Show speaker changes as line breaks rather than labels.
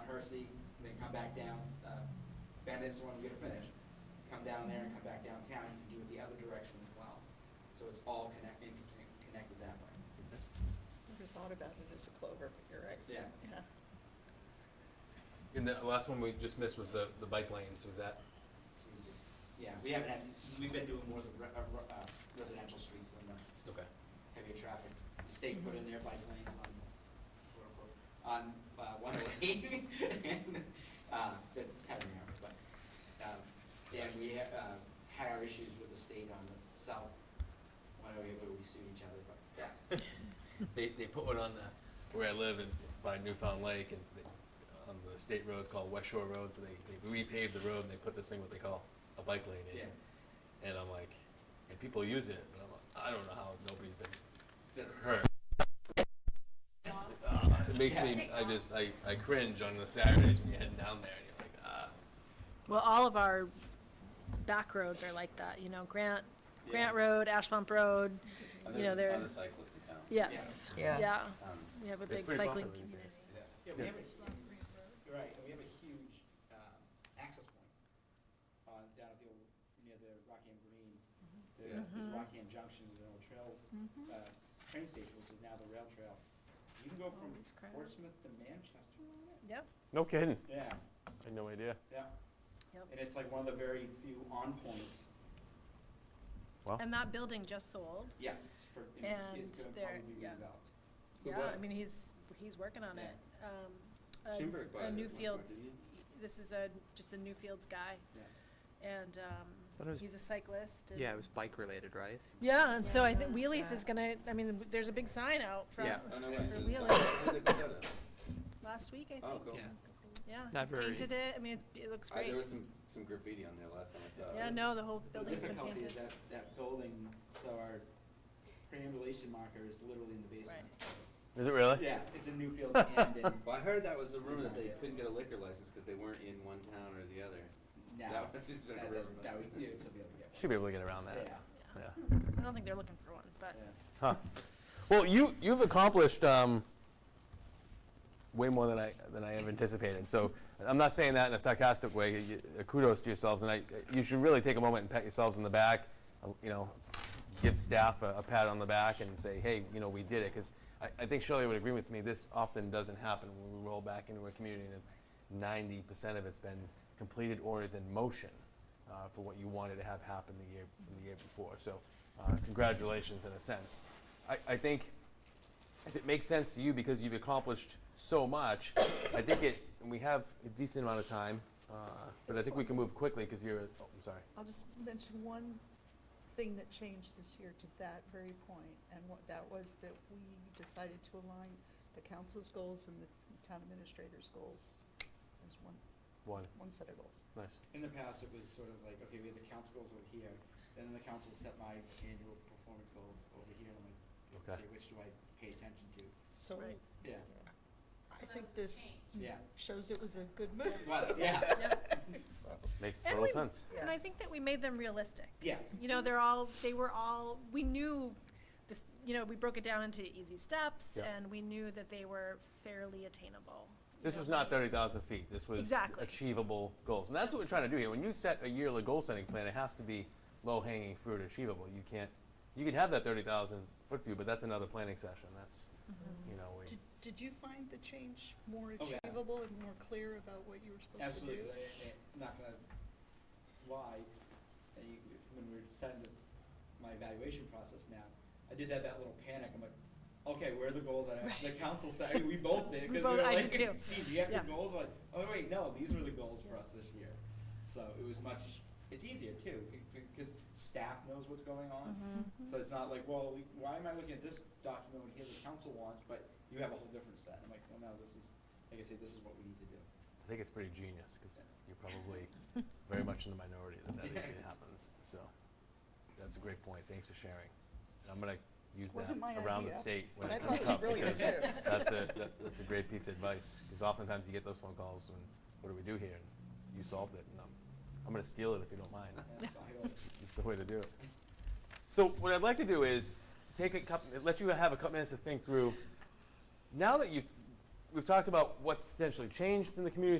CRC, and then come back down, uh, Bandit is the one who's gonna finish. Come down there and come back downtown, you can do it the other direction as well. So it's all connect, interconnect- connected that way.
Never thought about it as a clover, but you're right.
Yeah,
Yeah.
And the last one we just missed was the, the bike lanes, was that?
we just, yeah, we haven't had, we've been doing more of the re- uh, re- uh, residential streets than the
Okay.
heavy traffic. The state put in their bike lanes on, quote unquote, on, uh, one way. And, uh, to kind of narrow, but, um, and we, ha- uh, had our issues with the state on the south, one way where we sued each other, but, yeah.
They, they put one on the, where I live in, by Newfound Lake and they, on the state roads called West Shore Road, so they, they repaved the road and they put this thing what they call a bike lane in.
Yeah.
And I'm like, and people use it, and I'm like, I don't know how nobody's been
That's,
hurt. Uh, it makes me, I just, I, I cringe on the Saturdays when you're heading down there and you're like, ah.
Well, all of our back roads are like that, you know, Grant, Grant
Yeah.
Road, Ashbump Road,
And
You know,
Oh, there's a
there-
ton of cyclists in town.
yes.
Yeah.
Yeah,
Tons.
we have a
It's
big
pretty
cycling
popular these
community.
days.
Yeah.
yeah, we have a huge, you're right, and we have a huge, um, access point on, down at the old, near the Rockham Green.
Yeah.
There's Rockham Junction, there's an old trail uh, train station, which is now the rail trail. You can go from
Oh, it's crowded.
Portsmouth to Manchester on it?
Yep,
No kidding.
Yeah,
I had no idea.
yeah.
Yep.
And it's like one of the very few on points,
and that building just sold.
yes, for,
And
it's gonna
there-
probably be
yeah.
redeveloped.
Yeah, I mean, he's, he's working on it. Um, a-
Schoenberg bought it
A
at one
new
point,
fields,
didn't
this is a, just a new fields guy.
Yeah.
And,
Thought it
um,
was-
he's a cyclist. and-
Yeah, it was bike related, right?
Yeah, and so I
Yeah,
think
I noticed
Wheelies
that.
is gonna, I mean, there's a big sign out from
Yeah.
Oh, no, it's
For
a
real.
cycle. Where they put that at?
last week, I think.
Oh, cool.
Yeah.
Yeah,
Not
he
very-
painted it. I mean, it's, it looks
I,
great.
there was uh, some, some graffiti on there last time I saw it.
yeah, no, the whole
The
building's been
difficulty
painted.
is that, that building, so our preambulation marker is literally in the basement.
Is it really?
Yeah, it's a new field and in,
Well, I heard that was the rumor that they couldn't get a liquor license because they weren't in one town or the other.
now, that
That was just been a rumor.
doesn't, now we, yeah, it's a bit,
Should be able to get around
yeah,
that.
yeah,
Yeah.
I don't think they're looking for one, but
yeah.
Huh. Well, you you've accomplished um, way more than I than I have anticipated. So I'm not saying that in a sarcastic way. You, uh, kudos to yourselves, and I you should really take a moment and pat yourselves on the back. uh, You know, give staff a, a pat on the back and say, hey, you know, we did it. Because I, I think Shirley would agree with me. This often doesn't happen when we roll back into a community and it's 90% of it's been completed or is in motion uh, for what you wanted to have happen the year the year before. So, uh, congratulations in a sense. I, I think if it makes sense to you because you've accomplished so much, I think it. And we have a decent amount of time, uh, but I think we can move quickly because you're. Oh, I'm sorry.
I'll just mention one thing that changed this year to that very point, and what, that was that we decided to align the council's goals and the town administrator's goals as one,
One.
one set of goals.
Nice.
In the past, it was sort of like, okay, we have the council goals over here, then the council set my annual performance goals over here, and I'm like,
Okay.
okay, which do I pay attention to?
So
Right.
Yeah,
I think this
yeah,
shows it was a good move.
it was, yeah,
So-
Makes
And
total
we-
sense.
and I think that we made them realistic.
yeah,
You know, they're all they were all we knew this. You know, we broke it down into easy steps,
Yeah.
and we knew that they were fairly attainable. you
This
know.
was not 30,000 feet. This was
Exactly.
achievable goals. And that's what we're trying to do here. When you set a yearly goal setting plan, it has to be low hanging fruit achievable. You can't, you can have that 30,000 foot view, but that's another planning session. That's, you know, we,
Did, did you find the change more
Oh, yeah.
achievable and more clear about what you were supposed to do?
absolutely, I- I- I'm not gonna lie, and you, when we we're setting the, my evaluation process now, I did have that little panic, I'm like, okay, where are the goals that I, the council said, I mean, we both did,
We
because we
both-
were
I
like,
did too.
Steve, do you have your
Yeah.
goals? We're Like, oh wait, no, these were the goals for us this year, so it was much, it's easier too, because staff knows what's going on.
Mm-hmm.
So it's not like, well, we- why am I looking at this document when here the council wants, but you have a whole different set? I'm like, well, no, this is, like I say, this is what we need to do.
I think it's pretty genius because you're probably very much in the minority that that actually happens. So that's a great point. Thanks for sharing. And I'm going to use
Wasn't my
that around the
idea,
state when
But I
it comes
thought it was
up.
brilliant
because
too.
that's a that, that's a great piece of advice because oftentimes you get those phone calls and what do we do here? And you solved it, and I'm I'm gonna steal it if you don't mind.
And I go,
It's the way to do it. So what I'd like to do is take a couple, let you have a couple minutes to think through. Now that you've we've talked about what's potentially changed in the community